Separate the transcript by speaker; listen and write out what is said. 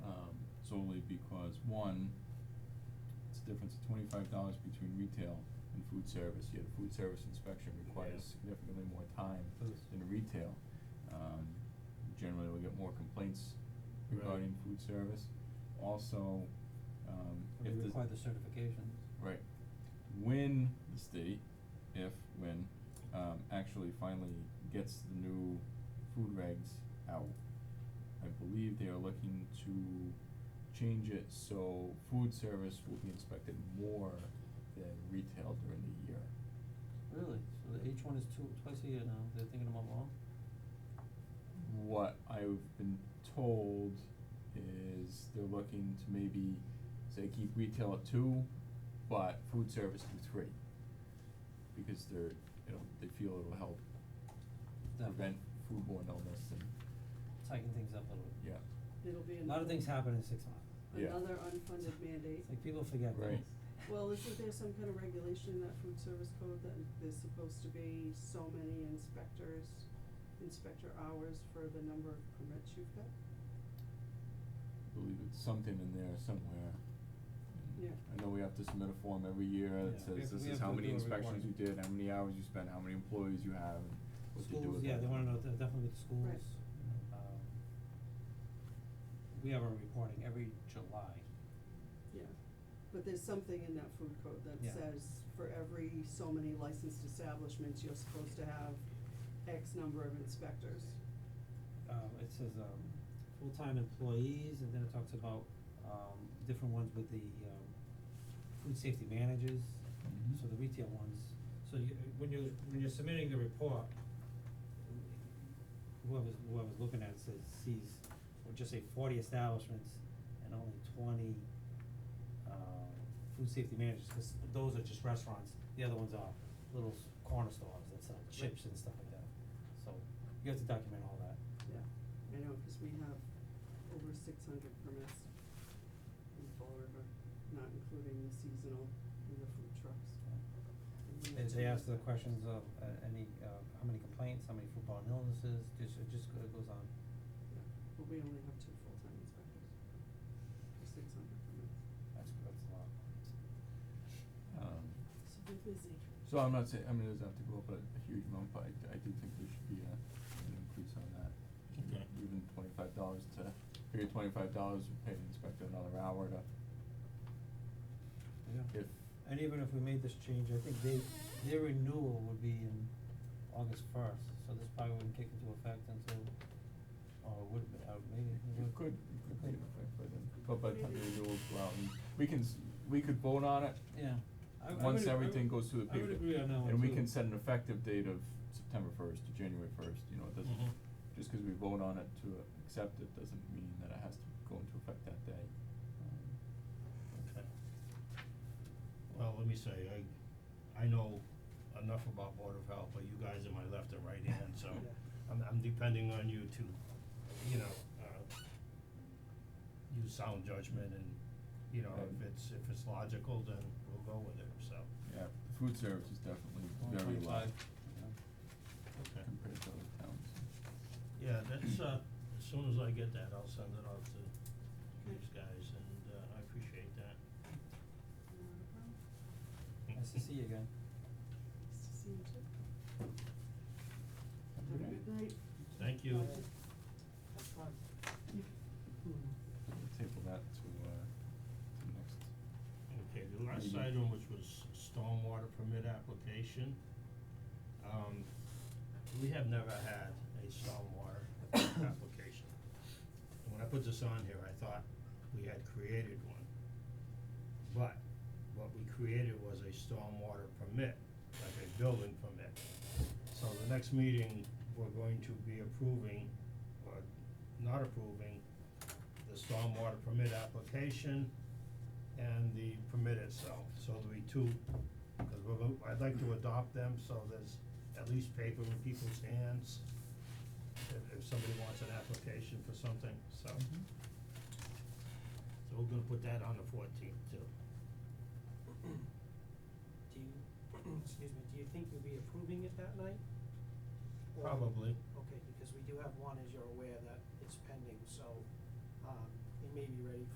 Speaker 1: solely Um, because, one, it's a difference of twenty-five dollars between retail and food service, yet a food service inspection requires significantly more time
Speaker 2: Does.
Speaker 1: than retail. Um, generally, we get more complaints
Speaker 2: Right.
Speaker 1: regarding food service. Also, um,
Speaker 2: Well,
Speaker 1: if
Speaker 2: They
Speaker 1: the
Speaker 2: require the certifications.
Speaker 1: Right. When the state, if, when, um, actually finally gets the new food regs out, I believe they are looking to change it so food service will be inspected more than retail during the year.
Speaker 2: Really? So the H one is two, twice a year now, they're thinking about more?
Speaker 1: What I've been told is they're looking to maybe, say, keep retail at two, but food service to three. Because they're, you know, they feel it'll help
Speaker 2: Definitely.
Speaker 1: prevent foodborne illness and,
Speaker 2: Tighten things up a little bit.
Speaker 1: yeah,
Speaker 3: It'll be
Speaker 2: A lot of things happen in six months.
Speaker 1: Yeah.
Speaker 3: another unfunded mandate.
Speaker 2: It's like people forget
Speaker 1: Right.
Speaker 2: things.
Speaker 3: Well, isn't there some kind of regulation in that food service code that there's supposed to be so many inspectors, inspector hours for the number of permits you've got?
Speaker 1: I believe it's something in there somewhere. And
Speaker 3: Yeah.
Speaker 1: I know we have to submit a form every year
Speaker 2: Yeah,
Speaker 1: that
Speaker 2: we have-
Speaker 1: says this
Speaker 2: we
Speaker 1: is
Speaker 2: have
Speaker 1: how
Speaker 2: to
Speaker 1: many
Speaker 2: do a
Speaker 1: inspections you
Speaker 2: report.
Speaker 1: did, how many hours you spent, how many employees you have, and what you do
Speaker 2: Schools,
Speaker 1: with
Speaker 2: yeah,
Speaker 1: that.
Speaker 2: they wanna know, de- definitely with schools,
Speaker 3: Right.
Speaker 2: you know, um, we have our reporting every July.
Speaker 3: Yeah, but there's something in that food code that
Speaker 2: Yeah.
Speaker 3: says for every so many licensed establishments, you're supposed to have X number of inspectors.
Speaker 2: Um, it says, um, full-time employees, and then it talks about, um, different ones with the, um, food safety managers,
Speaker 1: Mhm.
Speaker 2: so the retail ones. So you, when you, when you're submitting the report, whoever's, whoever's looking at it says, sees, or just say forty establishments and only twenty, uh, food safety managers, 'cause those are just restaurants, the other ones are little s- corner stores that sell chips and stuff like that. So you have to document all that.
Speaker 3: Yeah, I know, cause we have over six hundred permits in Fall River, not including the seasonal and the food trucks. And we
Speaker 2: They
Speaker 3: have
Speaker 2: they
Speaker 3: to-
Speaker 2: ask the questions of uh any uh how many complaints, how many foodborne illnesses, just it just go- it goes on.
Speaker 3: Yeah, but we only have two full-time inspectors for six hundred permits.
Speaker 2: That's that's a lot.
Speaker 1: Um,
Speaker 3: So we're busy.
Speaker 1: So I'm not saying, I mean, it doesn't have to go up a a huge amount, but I I do think there should be a an increase on that.
Speaker 4: Okay.
Speaker 1: Even twenty-five dollars to, figure twenty-five dollars, pay the inspector another hour to,
Speaker 2: Yeah.
Speaker 1: if,
Speaker 2: And even if we made this change, I think they their renewal would be in August first, so this probably wouldn't kick into effect until or it would uh maybe it would.
Speaker 1: it could, it could be
Speaker 2: Okay.
Speaker 1: in effect by then. But by the time the
Speaker 3: Maybe.
Speaker 1: renewals go out, and we can, s- we could vote on it
Speaker 2: Yeah. I I would
Speaker 1: once
Speaker 2: ag- I
Speaker 1: everything
Speaker 2: would-
Speaker 1: goes through the
Speaker 2: I
Speaker 1: paper.
Speaker 2: would agree on that one
Speaker 1: And we
Speaker 2: too.
Speaker 1: can set an effective date of September first to January first, you know, it doesn't,
Speaker 4: Mhm.
Speaker 2: Mm-hmm.
Speaker 1: just 'cause we vote on it to accept it doesn't mean that it has to go into effect that day. Um,
Speaker 4: Okay. Well, let me say, I, I know enough about Board of Health, but you guys are my left and right hand, so
Speaker 2: Yeah.
Speaker 4: I'm, I'm depending on you to, you know, uh, use sound judgment and, you know, if it's, if it's logical, then we'll go with it, so,
Speaker 1: Yeah, the food service is definitely
Speaker 2: One
Speaker 1: very low
Speaker 2: twenty-five, yeah.
Speaker 4: okay.
Speaker 1: compared to other towns.
Speaker 4: Yeah, that's, uh, as soon as I get that, I'll send it off to these guys, and, uh, I appreciate that.
Speaker 3: Not a problem.
Speaker 2: Nice to see you again.
Speaker 3: Nice to see you too.
Speaker 1: Have a
Speaker 3: Have a
Speaker 1: good
Speaker 3: good night.
Speaker 4: Thank you.
Speaker 3: Bye.
Speaker 5: Have fun.
Speaker 1: We'll table that to, uh, to next.
Speaker 4: Okay, the last
Speaker 1: Maybe.
Speaker 4: item, which was stormwater permit application. Um, we have never had a stormwater application. And when I put this on here, I thought we had created one. But what we created was a stormwater permit, like a building permit. So the next meeting, we're going to be approving or not approving the stormwater permit application and the permit itself, so there'll be two, because we're, go- I'd like to adopt them, so there's at least paper in people's hands if, if somebody wants an application for something, so. So we're gonna put that on the fourteenth too.
Speaker 5: Do you, excuse me, do you think you'll be approving it that night? Or-
Speaker 4: Probably.
Speaker 5: Okay, because we do have one, as you're aware, that is pending, so, um, it may be ready